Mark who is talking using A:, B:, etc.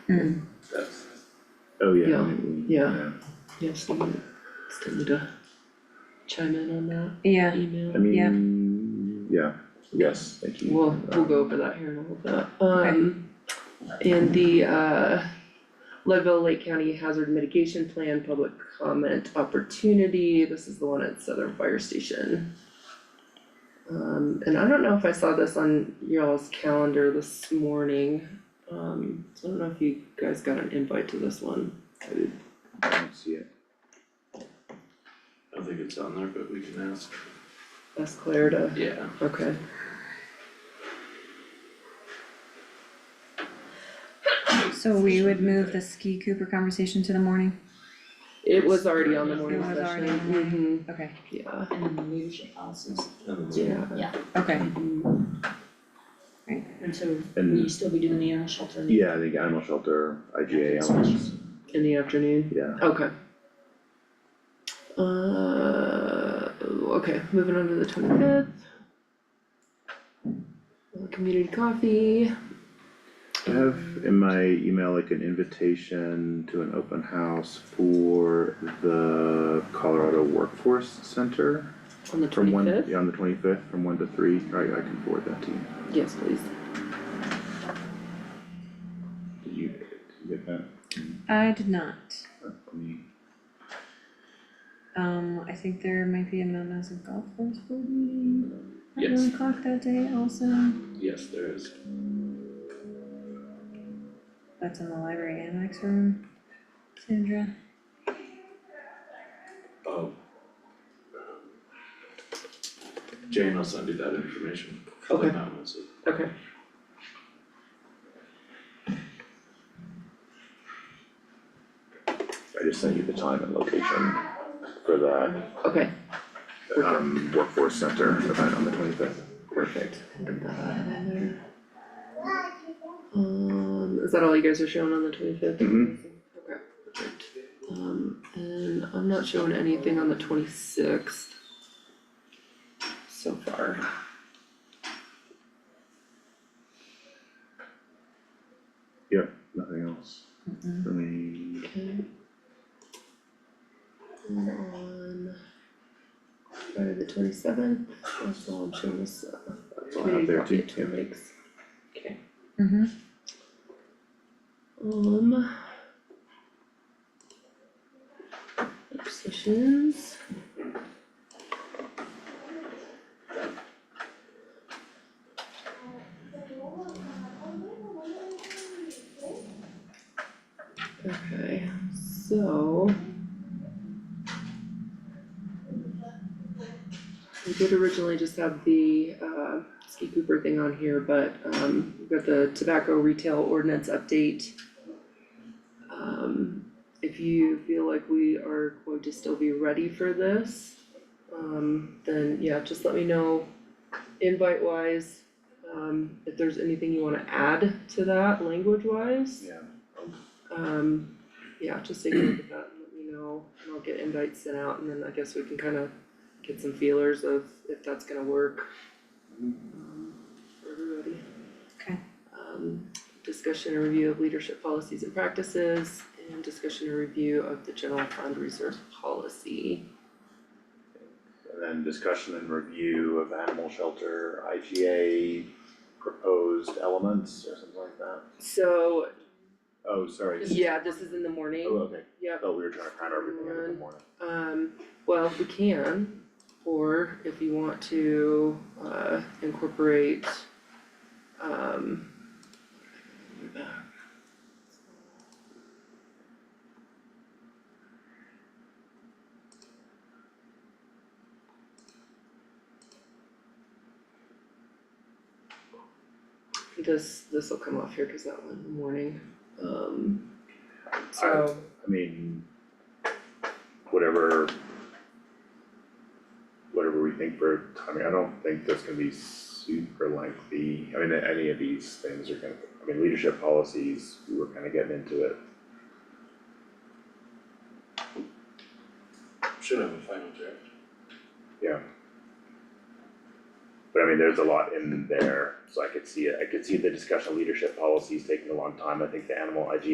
A: That's,
B: Oh, yeah.
C: Yeah,
B: maybe we-
C: yeah. Yeah, someone, still need to chime in on that
D: Yeah,
B: I
C: email.
D: Yeah.
B: mean, yeah, yes, thank you.
C: We'll, we'll go over that here in a little bit. Um, and the, uh, Leadville Lake County Hazard Mitigation Plan Public Comment Opportunity, this is the one at Southern Fire Station. Um, and I don't know if I saw this on y'all's calendar this morning, um, so I don't know if you guys got an invite to this one.
B: I did, I don't see it.
A: I don't think it's on there, but we can ask.
C: That's Claire to,
A: Yeah.
C: okay.
D: so we would move the Ski Cooper conversation to the morning,
C: It was already on the morning
D: It was
C: session.
D: already on the
C: Mhm,
D: okay,
C: yeah,
E: and the leadership policies,
A: And then
C: yeah.
D: okay,
C: Mhm.
E: and so
B: And-
E: will you still be doing the animal shelter?
B: Yeah, I think animal shelter, IGA elements,
C: In the afternoon,
B: yeah,
C: okay. Uh, okay, moving on to the twenty-fifth. Uh, Community coffee.
B: I have in my email like an invitation to an open house for the Colorado Workforce Center.
C: On the
B: From one,
C: twenty-fifth?
B: yeah, on the twenty-fifth, from one to three, I, I can forward that to you.
C: Yes, please.
B: Did you, did you get that?
D: I did not.
B: Uh, Let me,
D: Um, I think there might be a Mountain House Golf Course for me at
A: Yes.
D: one o'clock that day also.
A: Yes, there is.
D: That's in the library annex room, Sandra.
A: Oh. Jane will send you that information.
C: Okay.
A: That was it.
C: Okay.
B: I just sent you the time and location for the,
C: Okay.
B: um, Workforce Center event on the twenty-fifth. Perfect.
C: Put that on there. Um, is that all you guys are showing on the twenty-fifth?
B: Mhm.
C: Okay. Um, and I'm not showing anything on the twenty-sixth. So far.
B: Yep, nothing else for me.
C: Okay. And on Friday the twenty-seventh, that's all I'm showing us, uh,
B: That's all I have
C: community
B: there
C: coffee
B: too,
C: at
B: yeah.
C: Twin Lakes. Okay.
D: Mm-hmm.
C: Um. work Sessions. Okay, so. We did originally just have the uh Ski Cooper thing on here, but um we've got the tobacco retail ordinance update. Um, if you feel like we are going to still be ready for this, um, then yeah, just let me know invite wise. Um, if there's anything you wanna add to that language wise.
B: Yeah.
C: Um, yeah, just take a look at that and let me know, and I'll get invites sent out, and then I guess we can kind of get some feelers of if that's gonna work. um, For everybody.
D: Okay.
C: Um, discussion and review of leadership policies and practices, and discussion and review of the general fund reserve policy.
B: And then discussion and review of animal shelter, IGA proposed elements or something like that.
C: So,
B: Oh, sorry.
C: yeah, this is in the
B: Oh,
C: morning,
B: okay, I
C: yep,
B: thought we were trying to cram everything in in the morning.
C: um, well, we can, or if you want to, uh, incorporate, um, This, this will come off here, cause that one in the morning, um, so,
B: I mean, whatever. Whatever we think for timing, I don't think that's gonna be super lengthy, I mean, any of these things are gonna, I mean, leadership policies, we were kinda getting into it.
A: Should have a final draft.
B: But I mean, there's a lot in there, so I could see it, I could see the discussion of leadership policies taking a long time, I think the animal IG